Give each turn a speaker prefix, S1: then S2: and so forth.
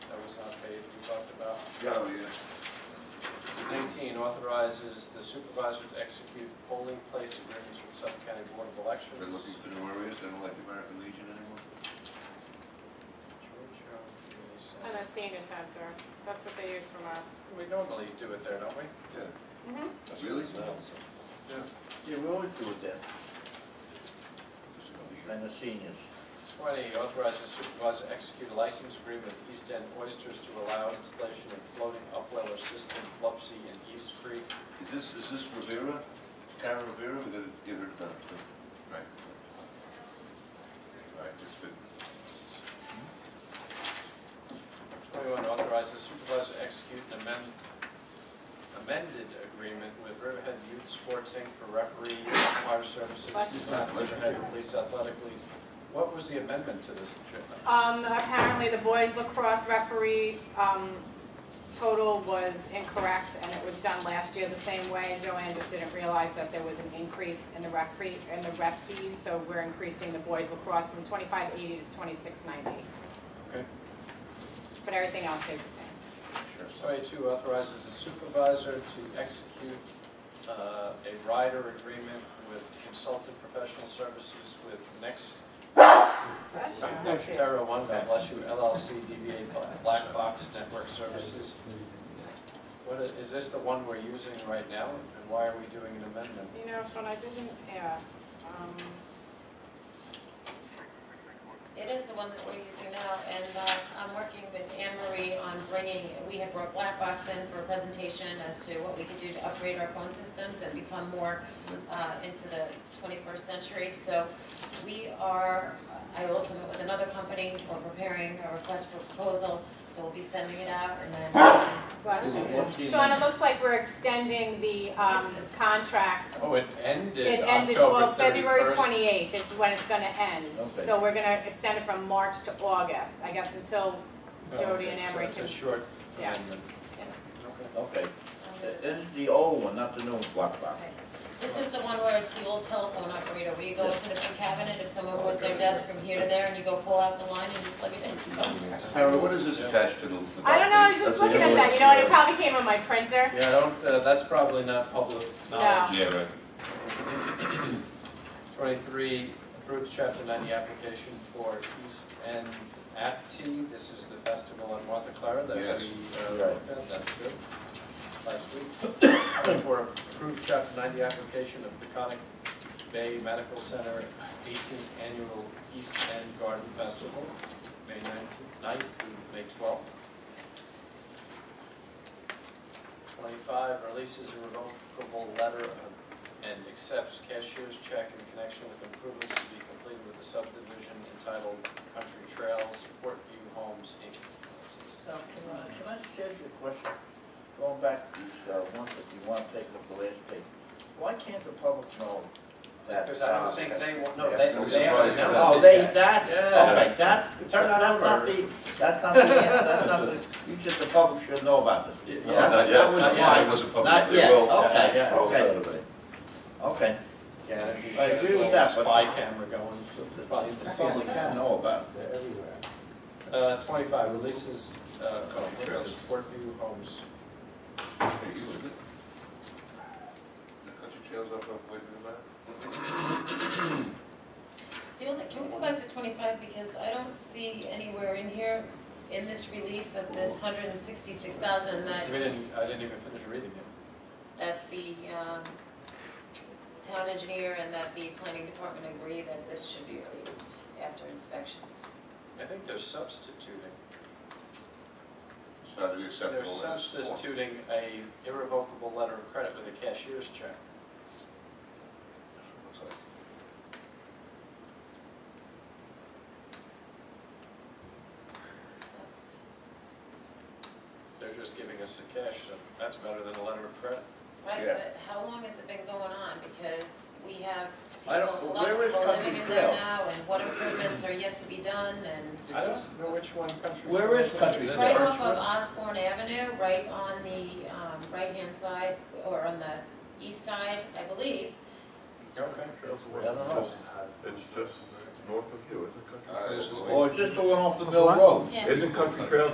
S1: oh,
S2: authorizes the supervisor to execute polling place agreements with Suffolk County Board of Elections.
S1: Been looking for new areas, I don't like the American Legion anymore.
S2: Georgia Community
S3: And
S2: Center.
S3: a senior center, that's what they use from us.
S2: We normally do it there, don't we?
S1: Yeah.
S3: Mhm.
S1: Really?
S4: Yeah, we always do it then,
S1: Yeah.
S4: and the seniors.
S2: Twenty, authorizes supervisor to execute a license agreement with East End Oysters to allow installation of floating upweller system Flopsy in East Creek.
S1: Is this, is this Rivera? Karen Rivera, we gotta get her to that, so. Right. Right, that's good.
S2: Twenty-one, authorizes supervisor to execute an amend- amended agreement with Riverhead Youth Sports Inc. for referee, fire services,
S3: Question.
S2: and Riverhead Police Athletic League. What was the amendment to this, Jim?
S3: Um, apparently the boys lacrosse referee, um, total was incorrect and it was done last year the same way. Joanne just didn't realize that there was an increase in the rec fee, in the rec fees, so we're increasing the boys lacrosse from twenty-five eighty to twenty-six ninety.
S2: Okay.
S3: But everything else stays the same.
S1: Sure.
S2: Twenty-two authorizes the supervisor to execute uh, a rider agreement with consultant professional services with Next, Next Terra One, God bless you, LLC, DBA Black Box Network Services. What is, is this the one we're using right now, and why are we doing an amendment?
S3: You know, Sean, I didn't ask, um,
S5: It is the one that we're using now, and uh, I'm working with Anne Marie on bringing, we had brought Black Box in for a presentation as to what we could do to upgrade our phone systems and become more uh, into the 21st century. So we are, I also met with another company for preparing a request for proposal, so we'll be sending it out, and then um,
S3: but,
S4: What's the
S3: Sean, it
S4: amendment?
S3: looks like we're extending the, um,
S5: This is-
S3: contract
S2: Oh, it ended
S3: It ended, well,
S2: October
S3: February
S2: thirty-first.
S3: 28th is when it's gonna end.
S4: Okay.
S3: So we're gonna extend it from March to August, I guess, until, Jody and Emery
S2: Oh, So
S3: can-
S2: it's a short
S3: Yeah.
S2: amendment. Okay.
S4: Okay,
S5: um,
S4: this is the old one, not the new one, block block.
S5: Okay. This is the one where it's the old telephone operator, where you go into the big cabinet, if someone moves their desk from here to there, and you go pull out the line and you plug it in, so.
S1: Karen, what is this attached to the? the
S3: I don't know, I was
S1: document?
S3: just looking at that, you know, it probably came on my printer.
S2: Yeah, I don't, uh, that's probably not public knowledge.
S1: Yeah, right.
S2: 23, approves Chapter 90 application for East End AFT. This is the festival on Martha Clara that we
S1: Yes.
S2: uh,
S4: Right.
S2: looked at, that's good, last week. 24, approves Chapter 90 application of Peconic Bay Medical Center 18th Annual East End Garden Festival, May 19th 9th through May 12th. 25, releases a revocable letter of and accepts cashier's check in connection with improvements to be completed with the subdivision entitled Country Trails, Portview Homes, Inc.
S4: Now, can I, can I just ask you a question? Going back to these, uh, ones that you want to take up the last page. Why can't the public know that?
S2: Because I don't
S4: uh,
S2: think
S4: that-
S2: they, wa- no,
S4: Yeah.
S2: they,
S1: No
S2: they haven't
S1: surprise.
S2: announced
S4: Oh,
S2: it
S4: they,
S2: yet.
S4: that's,
S2: Yeah.
S4: okay, that's,
S2: Turn that
S4: that's not
S2: over.
S4: the, that's not the, end, that's not the, you said the public should know about this.
S2: Yes.
S1: No, not yet.
S4: That was
S2: Not
S1: Not
S2: yet.
S1: yet.
S4: why.
S1: It wasn't public.
S4: Not
S1: They
S4: yet,
S1: will.
S2: Yeah,
S4: okay,
S2: yeah.
S4: okay,
S1: Saturday.
S4: okay.
S2: Yeah, if you
S4: I
S2: got this
S4: agree with
S2: little
S4: that, but-
S2: spy camera going, probably the
S4: The public should know about it.
S2: Uh, twenty-five, releases, uh, oh, what is
S1: Trails.
S2: it, Portview Homes.
S1: Hey, you with it? The country trails up, up, waiting in the back?
S5: The only, can we go back to twenty-five, because I don't see anywhere in here, in this release of this hundred and sixty-six thousand, that,
S2: We didn't, I didn't even finish reading it.
S5: that the, um, town engineer and that the planning department agree that this should be released after inspections.
S2: I think they're substituting.
S1: It's not really acceptable.
S2: They're
S1: in this form.
S2: substituting a irrevocable letter of credit with a cashier's check.
S1: Looks like.
S5: That's-
S2: They're just giving us the cash, so that's better than a letter of credit.
S5: Right,
S4: Yeah.
S5: but how long has it been going on? Because we have
S4: I don't-
S5: people, a lot
S4: where
S5: of
S4: is
S5: people
S4: Country
S5: living in there
S4: Trail?
S5: now, and what improvements are yet to be done, and
S2: I don't know which one country.
S4: Where is Country
S2: This
S4: Is
S5: right
S2: orange
S5: off
S2: one?
S5: of Osborne Avenue, right on the, um, right-hand side, or on the east side, I believe.
S2: Okay.
S4: I don't know.
S6: It's just north of you, isn't it?
S1: Uh, it's a little-
S4: Or just the one off the Mill Road.
S5: Yeah.
S6: Isn't Country Trails